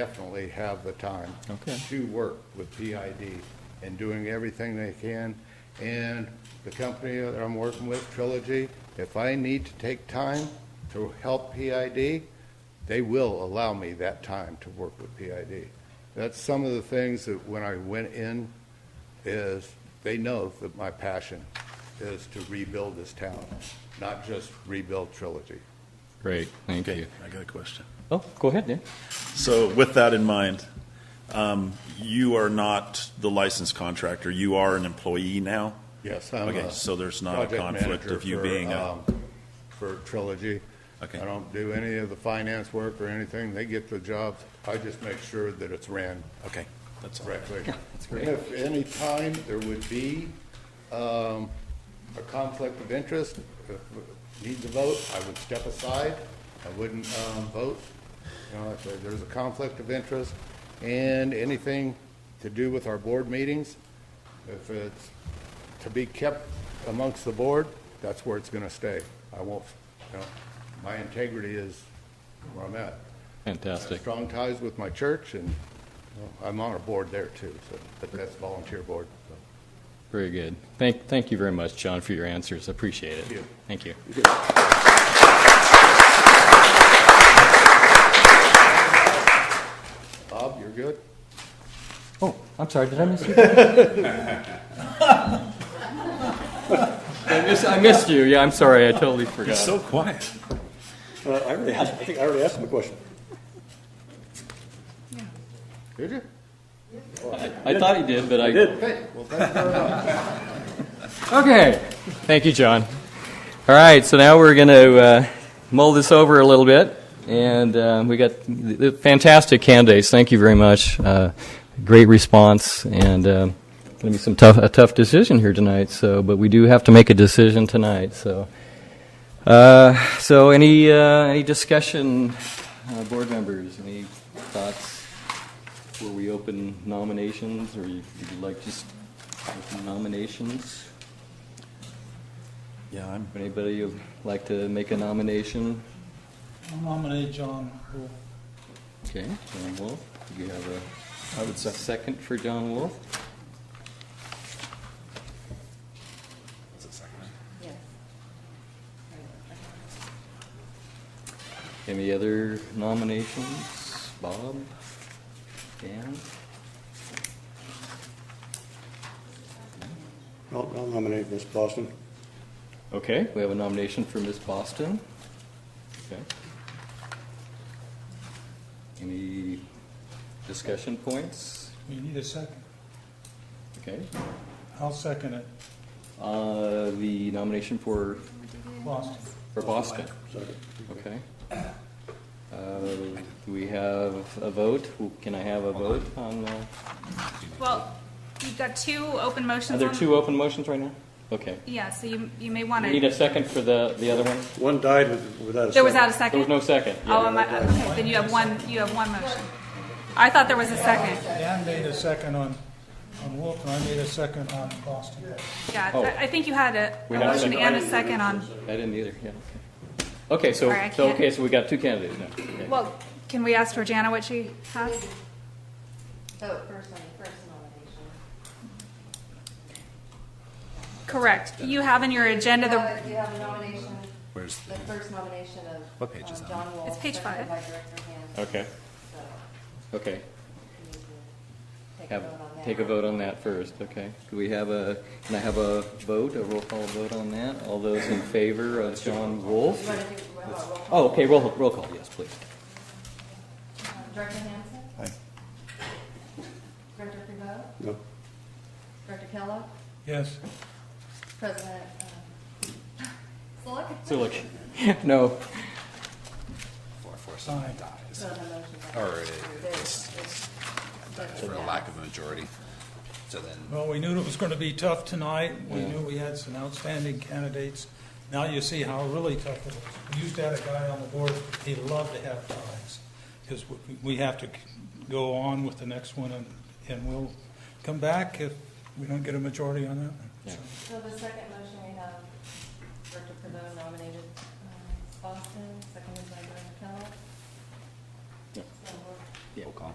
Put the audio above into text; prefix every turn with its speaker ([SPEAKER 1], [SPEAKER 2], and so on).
[SPEAKER 1] definitely have the time
[SPEAKER 2] Okay.
[SPEAKER 1] to work with PID and doing everything they can. And the company that I'm working with, Trilogy, if I need to take time to help PID, they will allow me that time to work with PID. That's some of the things that when I went in is they know that my passion is to rebuild this town, not just rebuild Trilogy.
[SPEAKER 2] Great, thank
[SPEAKER 3] Okay,
[SPEAKER 2] you.
[SPEAKER 3] I got a question.
[SPEAKER 2] Oh, go ahead, Dan.
[SPEAKER 3] So with that in mind, um, you are not the licensed contractor, you are an employee now?
[SPEAKER 1] Yes, I'm
[SPEAKER 3] Okay,
[SPEAKER 1] a
[SPEAKER 3] so there's not a
[SPEAKER 1] project
[SPEAKER 3] conflict
[SPEAKER 1] manager
[SPEAKER 3] of you
[SPEAKER 1] for,
[SPEAKER 3] being a-
[SPEAKER 1] um, For Trilogy.
[SPEAKER 3] Okay.
[SPEAKER 1] I don't do any of the finance work or anything. They get the jobs. I just make sure that it's ran
[SPEAKER 3] Okay, that's all.
[SPEAKER 1] correctly.
[SPEAKER 2] that's great.
[SPEAKER 1] And if any time there would be um, a conflict of interest, if it needs a vote, I would step aside. I wouldn't um, vote. You know, if there- there's a conflict of interest and anything to do with our board meetings, if it's to be kept amongst the board, that's where it's going to stay. I won't, you know, my integrity is where I'm at. I have
[SPEAKER 2] Fantastic.
[SPEAKER 1] Strong ties with my church, and well, I'm on a board there too, so, but that's volunteer board, so.
[SPEAKER 2] Very good. Thank, thank you very much, John, for your answers. Appreciate it.
[SPEAKER 1] Thank you.
[SPEAKER 2] Thank you.
[SPEAKER 1] Bob, you're good?
[SPEAKER 2] Oh, I'm sorry, did I miss you? I missed, I missed you. Yeah, I'm sorry, I totally forgot.
[SPEAKER 3] So quiet.
[SPEAKER 4] Uh, I already asked, I think I already asked him a question.
[SPEAKER 1] Did you?
[SPEAKER 2] I thought he did, but I.
[SPEAKER 4] did.
[SPEAKER 1] Okay, well, thank you very much.
[SPEAKER 2] Okay. Thank you, John. All right, so now we're going to uh, mull this over a little bit, and uh, we got th- th- fantastic candidates. Thank you very much. Uh, great response, and um going to be some tough a tough decision here tonight. So, but we do have to make a decision tonight. So, uh, so any uh, any discussion, uh, board members? Any thoughts? Were we open nominations, or you, would you like just open nominations?
[SPEAKER 3] Yeah, I'm,
[SPEAKER 2] Anybody would like to make a nomination?
[SPEAKER 5] I'll nominate eh, John Wolf.
[SPEAKER 2] Okay, John Wolf. Do you have a
[SPEAKER 3] I would say,
[SPEAKER 2] second for John Wolf? Any other nominations? Bob? Dan?
[SPEAKER 4] I'll I'll nominate Ms. Boston.
[SPEAKER 2] Okay, we have a nomination for Miss Boston. Okay. Any discussion points?
[SPEAKER 5] We need a second.
[SPEAKER 2] Okay.
[SPEAKER 5] I'll second it.
[SPEAKER 2] Uh, the nomination for,
[SPEAKER 5] Boston.
[SPEAKER 2] for Boston.
[SPEAKER 4] Second.
[SPEAKER 2] Okay. Uh, do we have a vote? Can I have a vote on, uh,
[SPEAKER 6] Well, you've got two open motions
[SPEAKER 2] are
[SPEAKER 6] on.
[SPEAKER 2] there two open motions right now? Okay.
[SPEAKER 6] Yeah, so you, you may want
[SPEAKER 2] We need
[SPEAKER 6] to,
[SPEAKER 2] a second for the, the other one?
[SPEAKER 4] One died with- without a second.
[SPEAKER 6] there was not a
[SPEAKER 2] There
[SPEAKER 6] second?
[SPEAKER 2] was no second. yeah.
[SPEAKER 6] Oh, am I- okay, then you have one, you have one motion. I thought there was a second.
[SPEAKER 5] Dan made a second on, on Wolf, and I made a second on Boston.
[SPEAKER 6] Yeah,
[SPEAKER 2] Oh.
[SPEAKER 6] I- I think you had a
[SPEAKER 2] We
[SPEAKER 6] a
[SPEAKER 2] had a
[SPEAKER 6] motion
[SPEAKER 2] second.
[SPEAKER 6] and a second on,
[SPEAKER 2] I didn't either, yeah. Okay, Okay, so,
[SPEAKER 6] Sorry, I
[SPEAKER 2] so,
[SPEAKER 6] can't-
[SPEAKER 2] okay, so we got two candidates now. Okay.
[SPEAKER 6] well, can we ask Georgiana what she has?
[SPEAKER 7] vote Oh, first on the first nomination.
[SPEAKER 6] Correct. You have in your agenda the,
[SPEAKER 7] Uh, You have a nomination,
[SPEAKER 3] where's,
[SPEAKER 7] the first nomination of
[SPEAKER 3] What page is
[SPEAKER 7] um,
[SPEAKER 3] that on?
[SPEAKER 7] John Wolf.
[SPEAKER 6] It's page
[SPEAKER 7] seconded
[SPEAKER 6] five.
[SPEAKER 7] by Director Hand.
[SPEAKER 2] Okay,
[SPEAKER 7] So
[SPEAKER 2] okay.
[SPEAKER 7] you need to Take a
[SPEAKER 2] Have,
[SPEAKER 7] vote on that.
[SPEAKER 2] take a vote on that first, okay? Do we have a, can I have a vote, a roll call vote on that? All those in favor of John Wolf?
[SPEAKER 7] You want to do, what about roll call?
[SPEAKER 2] Oh, okay, roll, roll call, yes, please. Oh.
[SPEAKER 7] Um, Director Hanson?
[SPEAKER 3] Aye.
[SPEAKER 7] Director Primo?
[SPEAKER 4] No.
[SPEAKER 7] Director Kellogg?
[SPEAKER 5] Yes.
[SPEAKER 7] President, um, Select?
[SPEAKER 2] So look, no,
[SPEAKER 5] Aye.
[SPEAKER 7] So the motion.
[SPEAKER 8] Or it-
[SPEAKER 7] It's- it's-
[SPEAKER 8] for a lack of a majority. So then,
[SPEAKER 5] Well, we knew it was going to be tough tonight. We knew we had some outstanding candidates. Now you see how really tough it is. We used to have a guy on the board, he loved to have ties, because we have to go on with the next one, and, and we'll come back if we don't get a majority on that.
[SPEAKER 2] Yeah.
[SPEAKER 7] So the second motion we have, Director Primo nominated uh, um, Boston, seconded by Director Kellogg.
[SPEAKER 2] Yeah.
[SPEAKER 7] So we're-
[SPEAKER 8] roll call.